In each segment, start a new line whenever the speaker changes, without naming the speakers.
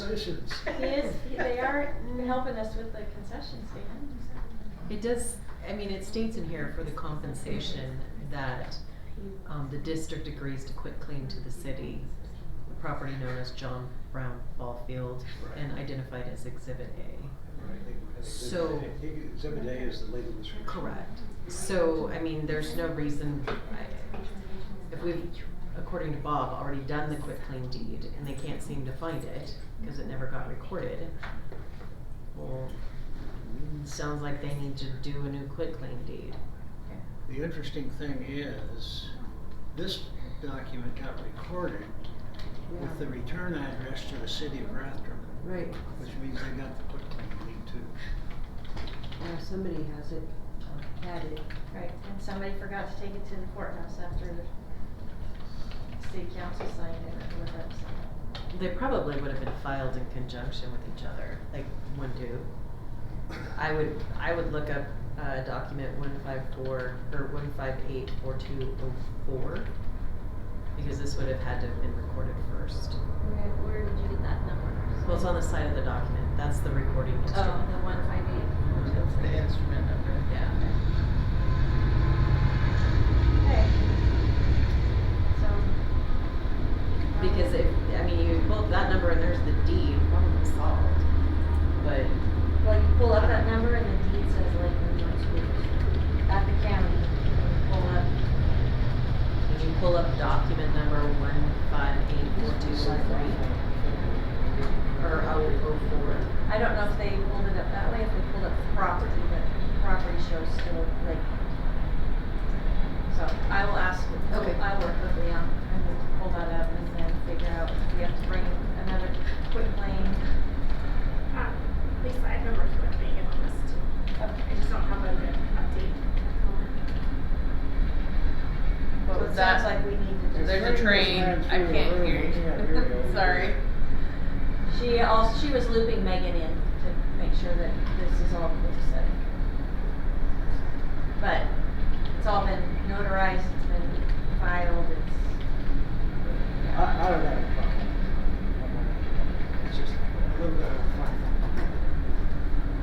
concessions.
He is, he- they are helping us with the concession stand.
It does, I mean, it states in here for the compensation that, um, the district agrees to quit clean to the city. The property known as John Brown Ball Field and identified as Exhibit A.
Right, I think- I think
So-
exhibit A- Exhibit A is the legal description.
Correct. So, I mean, there's no reason, I, if we've, according to Bob, already done the quit claim deed and they can't seem to find it, cause it never got recorded. Well, sounds like they need to do a new quit claim deed.
The interesting thing is, this document got recorded with the return address to the city of Rathdrum,
Right,
which means they got the quit claim deed too.
now uh, somebody has it, uh, had it.
Right, and somebody forgot to take it to the courthouse after the city council signed it with us.
They probably would have been filed in conjunction with each other, like one do. I would, I would look up, uh, document one five four, or one five eight four two oh four. Because this would have had to have been recorded first.
Where, where did you get that number?
Well, it's on the side of the document, that's the recording
Oh,
instrument.
the one five eight.
The instrument number.
Yeah.
Okay. So.
Because
um,
if, I mean, you pull up that number and there's the deed, problem solved. But,
Well, you pull up that number and the deed says Lakeland Joint Schools at the county. and Pull up,
did you pull up document number one five eight four two oh three? Or oh oh four?
I don't know if they pulled it up that way, if they pulled up property, but property shows still Lakeland. So I will ask,
Okay.
I work with Leon and we'll pull that up and then figure out if we have to bring another quick claim.
Um, Lisa, I've been working with Megan on this too. I just don't have a good update at the moment.
But it
Was
sounds
that-
like we need to just.
There's a train, I can't hear you. Sorry.
She also, she was looping Megan in to make sure that this is all the set. But it's all been notarized, it's been filed, it's.
I, I don't have a problem. It's just a little bit of a fun.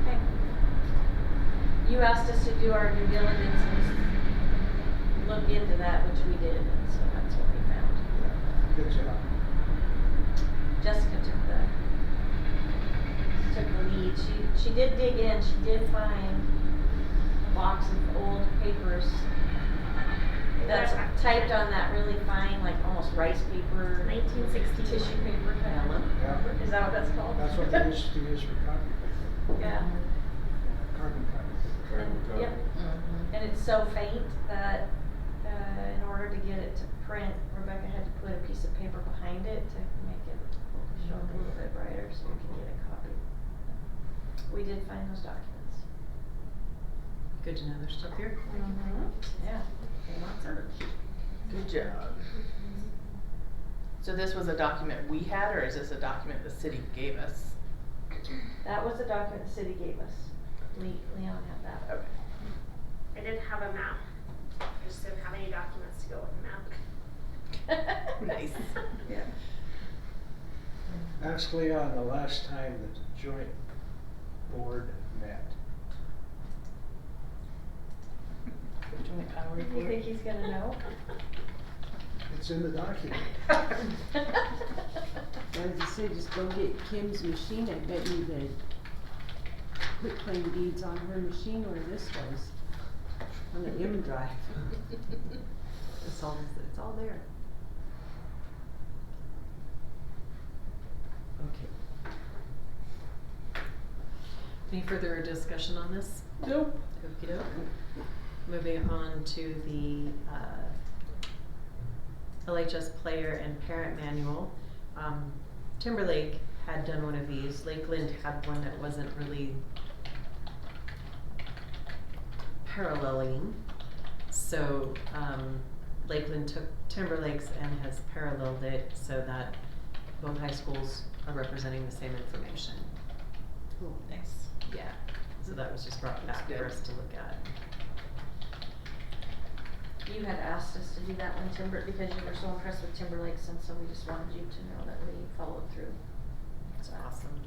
Okay. You asked us to do our due diligence and look into that, which we did, and so that's what we found.
Good job.
Jessica took the, took the lead. She, she did dig in, she did find a box of old papers that's typed on that really fine, like almost rice paper,
Nineteen sixty-one.
tissue paper.
Yeah,
Is that what that's called?
that's what they used to use for copy paper,
Yeah.
uh, carbon copy.
And- Yep,
Mm-hmm.
and it's so faint that, uh, in order to get it to print, Rebecca had to put a piece of paper behind it to make it show up a little bit brighter so we can get a copy. We did find those documents.
Good to know they're still here.
Mm-hmm. Yeah, they want search.
Good job. So this was a document we had, or is this a document the city gave us?
That was the document the city gave us. Le- Leon had that.
Okay.
I didn't have a map. I just didn't have any documents to go with the map.
Nice.
Yeah.
Ask Leon the last time that the joint board met.
Joint power
Do you
report.
think he's gonna know?
It's in the document.
I was gonna say, just go get Kim's machine, I bet you the quit claim deeds on her machine where this was, on the M drive.
It's all, it's all there. Okay. Any further discussion on this?
Nope.
Okey doke. Moving on to the uh, LHS player and parent manual. Um, Timberlake had done one of these. Lakeland had one that wasn't really paralleling. So um, Lakeland took Timberlake's and has paralleled it so that both high schools are representing the same information.
Cool.
Nice.
Yeah, so that was just brought
That's
back for
good.
us to look at.
You had asked us to do that one Timber, because you were so impressed with Timberlake, and so we just wanted you to know that we followed through.